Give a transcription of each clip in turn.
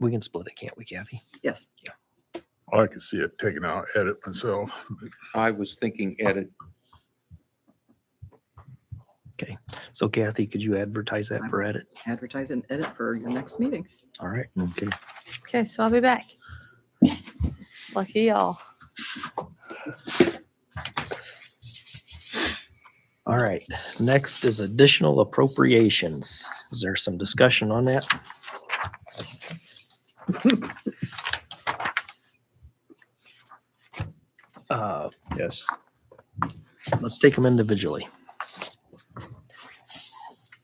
We can split it, can't we, Kathy? Yes. I could see it taken out, edit myself. I was thinking edit. So Kathy, could you advertise that for edit? advertise and edit for your next meeting. All right. Okay. Okay, so I'll be back. Lucky y'all. All right. Next is additional appropriations. Is there some discussion on that? Uh, Yes. let's take them individually.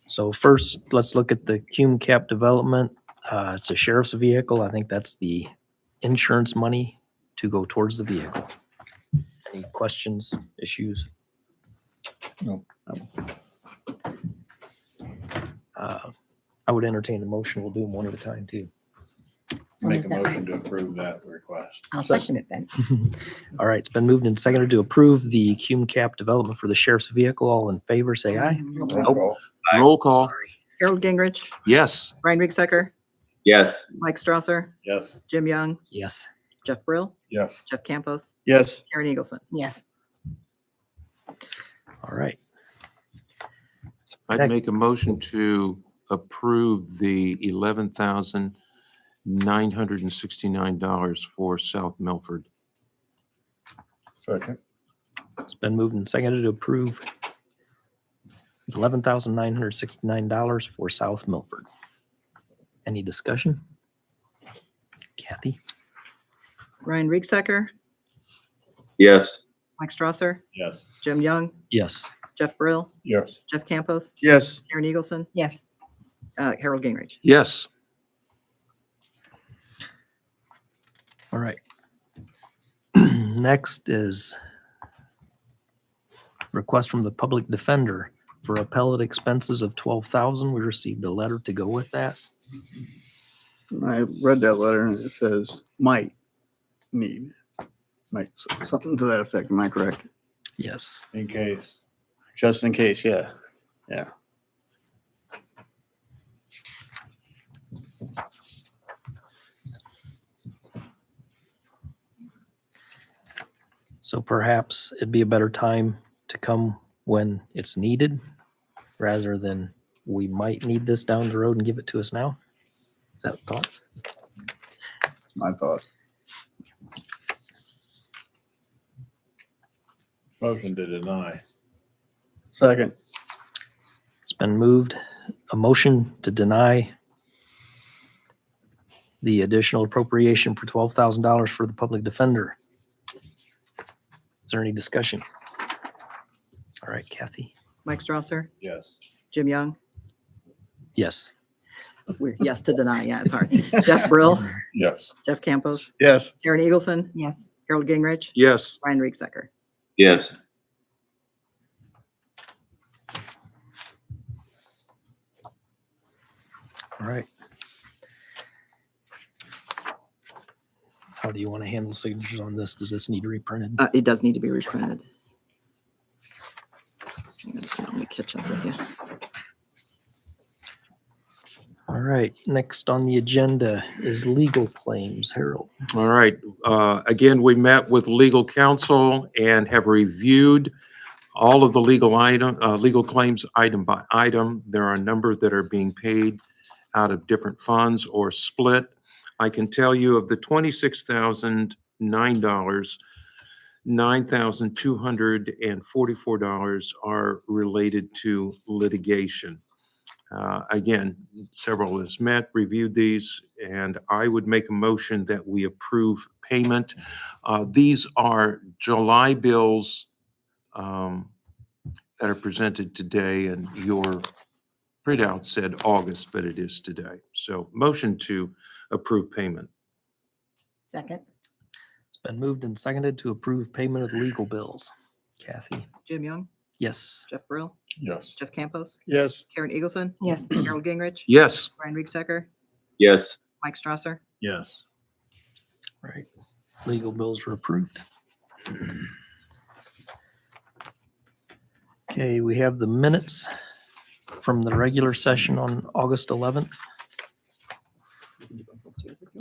So first, let's look at the Cume Cap development. Uh, it's a sheriff's vehicle. I think that's the insurance money to go towards the vehicle. Any questions, issues? No. Uh, I would entertain a motion. We'll do them one at a time too. Make a motion to approve that request. I'll second it then. All right, it's been moved and seconded to approve the Cume Cap development for the sheriff's vehicle. All in favor, say aye. Nope. Roll call. Sorry. Harold Gingrich, Yes. Ryan Riecksecker, Yes. Mike Strasser, Yes. Jim Young, Yes. Jeff Brill, Yes. Jeff Campos, Yes. Karen Eagleson. Yes. All right. I'd Heck. make a motion to approve the eleven thousand nine hundred and sixty-nine dollars for South Milford. Second. It's been moved and seconded to approve eleven thousand nine hundred sixty-nine dollars for South Milford. Any discussion? Kathy? Ryan Riecksecker, Yes. Mike Strasser, Yes. Jim Young, Yes. Jeff Brill, Yes. Jeff Campos, Yes. Karen Eagleson. Yes. Uh, Harold Gingrich. Yes. All right. Next is request from the public defender for appellate expenses of twelve thousand. We received a letter to go with that. I read that letter and it says might need, like s- something to that effect. Am I correct? Yes. In case. Just in case, yeah. So perhaps it'd be a better time to come when it's needed rather than we might need this down the road and give it to us now. Is that thoughts? That's my thought. Motion to deny. Second. It's been moved, a motion to deny the additional appropriation for twelve thousand dollars for the public defender. Is there any discussion? All right, Kathy? Mike Strasser, Yes. Jim Young. Yes. It's weird. Yes to deny. Yeah, it's hard. Jeff Brill, Yes. Jeff Campos, Yes. Karen Eagleson. Yes. Harold Gingrich, Yes. Ryan Riecksecker. Yes. All right. How do you want to handle signatures on this? Does this need reprinted? Uh, it does need to be reprinted. I'm just gonna Let me catch up with you. All right, next on the agenda is legal claims, Harold. All right. uh, Again, we met with legal counsel and have reviewed all of the legal item, uh, legal claims item by item. There are a number that are being paid out of different funds or split. I can tell you of the twenty-six thousand nine dollars, nine thousand two hundred and forty-four dollars are related to litigation. Uh, Again, several has met, reviewed these, and I would make a motion that we approve payment. Uh, These are July bills um, that are presented today, and your printout said August, but it is today. So motion to approve payment. Second. It's been moved and seconded to approve payment of the legal bills. Kathy? Jim Young, Yes. Jeff Brill, Yes. Jeff Campos, Yes. Karen Eagleson. Yes. Harold Gingrich, Yes. Ryan Riecksecker, Yes. Mike Strasser. Yes. Right. Legal bills were approved. Okay, we have the minutes from the regular session on August 11th. too.